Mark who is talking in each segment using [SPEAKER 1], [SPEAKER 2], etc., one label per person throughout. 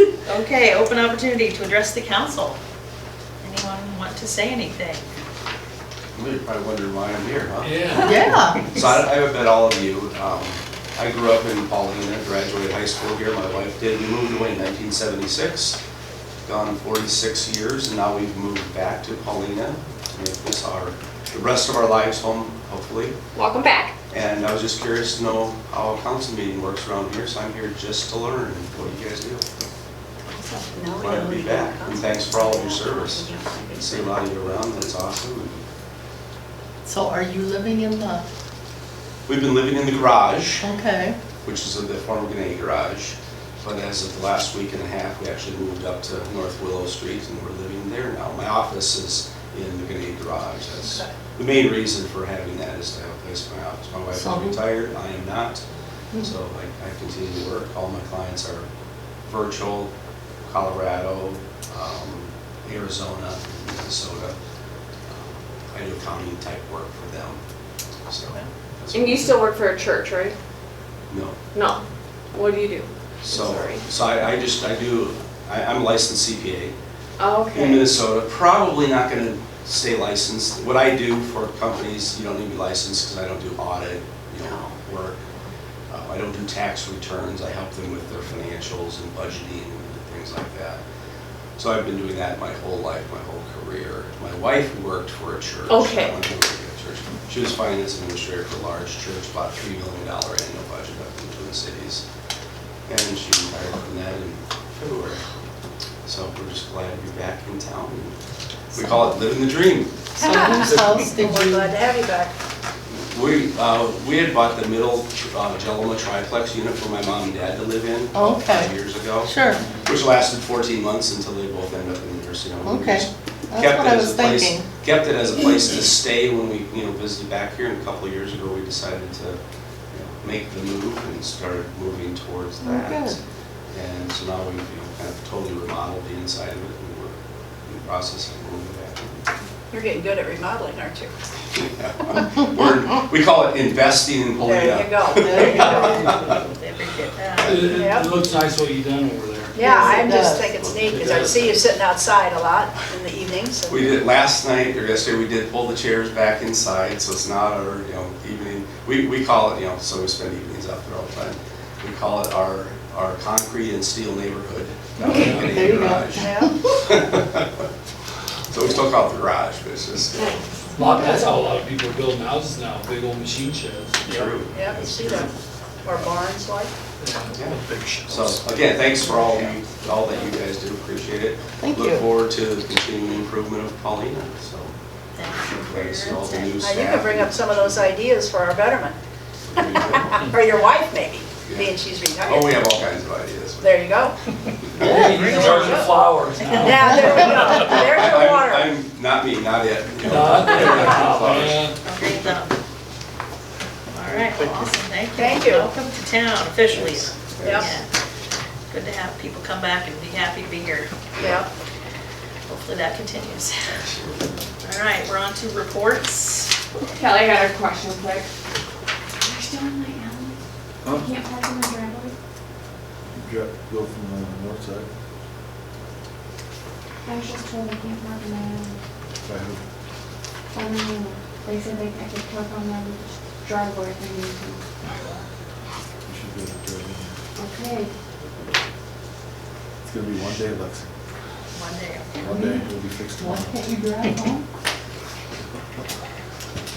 [SPEAKER 1] Okay, open opportunity to address the council. Anyone want to say anything?
[SPEAKER 2] You're probably wondering why I'm here, huh?
[SPEAKER 3] Yeah.
[SPEAKER 1] Yeah.
[SPEAKER 2] So I, I've met all of you. Um, I grew up in Paulina, graduated high school here. My wife did. We moved away in 1976. Gone 46 years, and now we've moved back to Paulina to make this our, the rest of our lives home, hopefully.
[SPEAKER 4] Welcome back.
[SPEAKER 2] And I was just curious to know how a council meeting works around here, so I'm here just to learn what you guys do. Glad to be back, and thanks for all of your service. I See a lot of you around, that's awesome. And
[SPEAKER 5] So are you living in the,
[SPEAKER 2] We've been living in the garage,
[SPEAKER 5] okay,
[SPEAKER 2] which is the former Gennady Garage. But as of the last week and a half, we actually moved up to North Willow Street and we're living there now. My office is in the Gennady Garage. That's
[SPEAKER 5] Okay.
[SPEAKER 2] the main reason for having that is to have a place for my office. My wife is
[SPEAKER 5] So-
[SPEAKER 2] retired, I am not.
[SPEAKER 4] Hmm.
[SPEAKER 2] So I, I continue to work. All my clients are virtual, Colorado, um, Arizona, Minnesota. Um, I do accounting type work for them, so. that's-
[SPEAKER 4] And you still work for a church, right?
[SPEAKER 2] No.
[SPEAKER 4] No. What do you do?
[SPEAKER 2] So,
[SPEAKER 4] Sorry.
[SPEAKER 2] so I, I just, I do, I, I'm a licensed CPA
[SPEAKER 4] Oh,
[SPEAKER 2] in
[SPEAKER 4] okay.
[SPEAKER 2] Minnesota, probably not gonna stay licensed. What I do for companies, you don't need to be licensed, because I don't do audit, you know, work. Uh, I don't do tax returns, I help them with their financials and budgeting and things like that. So I've been doing that my whole life, my whole career. My wife worked for a church.
[SPEAKER 4] Okay.
[SPEAKER 2] I went to work at a church. She was finance administrator for a large church, about three million dollar annual budget up in Twin Cities. And she retired from that in February. So we're just glad to be back in town. We call it living the dream.
[SPEAKER 5] so whose house did
[SPEAKER 6] We're
[SPEAKER 5] you,
[SPEAKER 6] glad to have you back.
[SPEAKER 2] We, uh, we had bought the middle uh, Jelma triplex unit for my mom and dad to live in.
[SPEAKER 5] Oh, okay.
[SPEAKER 2] five Years ago.
[SPEAKER 5] sure,
[SPEAKER 2] Which lasted 14 months until they both ended up in the nursing home. We
[SPEAKER 5] Okay.
[SPEAKER 2] just
[SPEAKER 5] That's
[SPEAKER 2] kept
[SPEAKER 5] what
[SPEAKER 2] it
[SPEAKER 5] I
[SPEAKER 2] as a
[SPEAKER 5] was
[SPEAKER 2] place-
[SPEAKER 5] thinking.
[SPEAKER 2] Kept it as a place to stay when we, you know, visited back here. And a couple of years ago, we decided to you know, make the move and started moving towards
[SPEAKER 5] Oh,
[SPEAKER 2] that.
[SPEAKER 5] good.
[SPEAKER 2] And so now we've, you know, kind of totally remodeled the inside of it and we're in the process of moving back.
[SPEAKER 6] You're getting good at remodeling, aren't you?
[SPEAKER 2] Yeah. We're, we call it investing
[SPEAKER 5] Oh,
[SPEAKER 2] in Polina.
[SPEAKER 6] There you go.
[SPEAKER 5] There you go.
[SPEAKER 3] It,
[SPEAKER 6] Yeah.
[SPEAKER 3] it looks nice what you done over there.
[SPEAKER 6] Yeah,
[SPEAKER 5] Yes, it
[SPEAKER 6] I'm just
[SPEAKER 5] does.
[SPEAKER 6] thinking it's neat, because I see you sitting outside a lot in the evenings. and-
[SPEAKER 2] We did, last night, or yesterday, we did pull the chairs back inside, so it's not our, you know, evening, we, we call it, you know, so we spend evenings out there all the time. We call it our, our concrete and steel neighborhood. down in the
[SPEAKER 5] There you go.
[SPEAKER 2] garage.
[SPEAKER 6] Yeah.
[SPEAKER 2] So we still call it the garage, but it's just
[SPEAKER 3] Lot, that's how a lot of people are building houses now, big old machine sheds.
[SPEAKER 2] true.
[SPEAKER 6] Yeah, you
[SPEAKER 2] It's
[SPEAKER 6] see
[SPEAKER 2] true.
[SPEAKER 6] that, or barns like.
[SPEAKER 2] Yeah.
[SPEAKER 3] Big sheds.
[SPEAKER 2] So, again, thanks for all, you- all that you guys do, appreciate it.
[SPEAKER 5] Thank you.
[SPEAKER 2] Look forward to the continuing improvement of Paulina, so. glad to see all the new
[SPEAKER 6] Now,
[SPEAKER 2] staff.
[SPEAKER 6] Uh, you can bring up some of those ideas for our betterment, or your wife maybe, being she's
[SPEAKER 2] Oh, we
[SPEAKER 6] retired.
[SPEAKER 2] have all kinds of ideas.
[SPEAKER 6] There you go.
[SPEAKER 3] Maybe you charge the flowers now.
[SPEAKER 6] Yeah, there we go. There's
[SPEAKER 2] I-
[SPEAKER 6] your
[SPEAKER 2] I'm-
[SPEAKER 6] water.
[SPEAKER 2] I'm, not me, not yet.
[SPEAKER 3] Not there, Oh, yeah.
[SPEAKER 1] Great job. All right, well, awesome, thank you.
[SPEAKER 6] Thank you.
[SPEAKER 1] Welcome to town officially.
[SPEAKER 2] Thanks.
[SPEAKER 6] Yep.
[SPEAKER 1] Yeah. Good to have people come back and be happy to be here.
[SPEAKER 6] Yeah.
[SPEAKER 1] Hopefully that continues. All right, we're on to reports.
[SPEAKER 4] Kelly had a question quick.
[SPEAKER 7] You're still in my alley? I can't park in my driveway?
[SPEAKER 8] Dri- Go from the north side,
[SPEAKER 7] I was just told I can't park in my alley.
[SPEAKER 8] if I heard,
[SPEAKER 7] Only, they said they, I could park on my driveway if I need to.
[SPEAKER 8] you should be able to drive in there.
[SPEAKER 7] Okay.
[SPEAKER 8] It's gonna be one day, Lexi.
[SPEAKER 1] One day.
[SPEAKER 8] One day, it'll be fixed
[SPEAKER 5] why
[SPEAKER 8] tomorrow.
[SPEAKER 5] can't you drive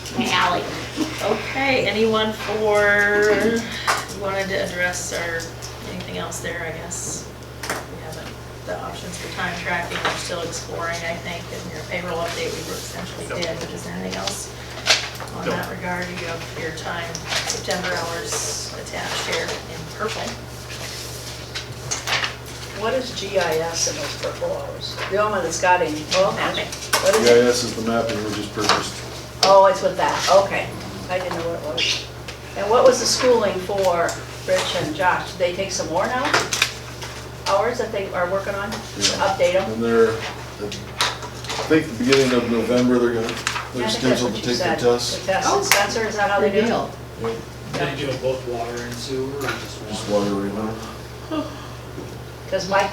[SPEAKER 5] home?
[SPEAKER 4] My alley.
[SPEAKER 1] Okay, anyone for, you wanted to address or anything else there, I guess? We haven't, the options for time tracking, we're still exploring, I think, in your payroll update, we essentially did, but is there anything else on that regard? You have your time, September hours attached here in purple.
[SPEAKER 6] What is GIS in those purple hours? The only one that's got any, well,
[SPEAKER 1] Mapping.
[SPEAKER 6] what is it?
[SPEAKER 8] GIS is the map that we just purchased.
[SPEAKER 6] Oh, it's with that, okay. I didn't know what it was. And what was the schooling for Rich and Josh? Did they take some more now? Hours that they are working on, to
[SPEAKER 8] Yeah.
[SPEAKER 6] update them?
[SPEAKER 8] And they're, I think the beginning of November, they're gonna,
[SPEAKER 6] Yeah, I
[SPEAKER 8] they're
[SPEAKER 6] think that's
[SPEAKER 8] scheduled
[SPEAKER 6] what
[SPEAKER 8] to
[SPEAKER 6] you
[SPEAKER 8] take the
[SPEAKER 6] said.
[SPEAKER 8] test.
[SPEAKER 6] The test,
[SPEAKER 5] Oh.
[SPEAKER 6] Spencer, is that how they do
[SPEAKER 5] Good
[SPEAKER 6] it?
[SPEAKER 5] deal.
[SPEAKER 3] They do both water and sewer or just one?
[SPEAKER 8] Just water right now.
[SPEAKER 6] Because Mike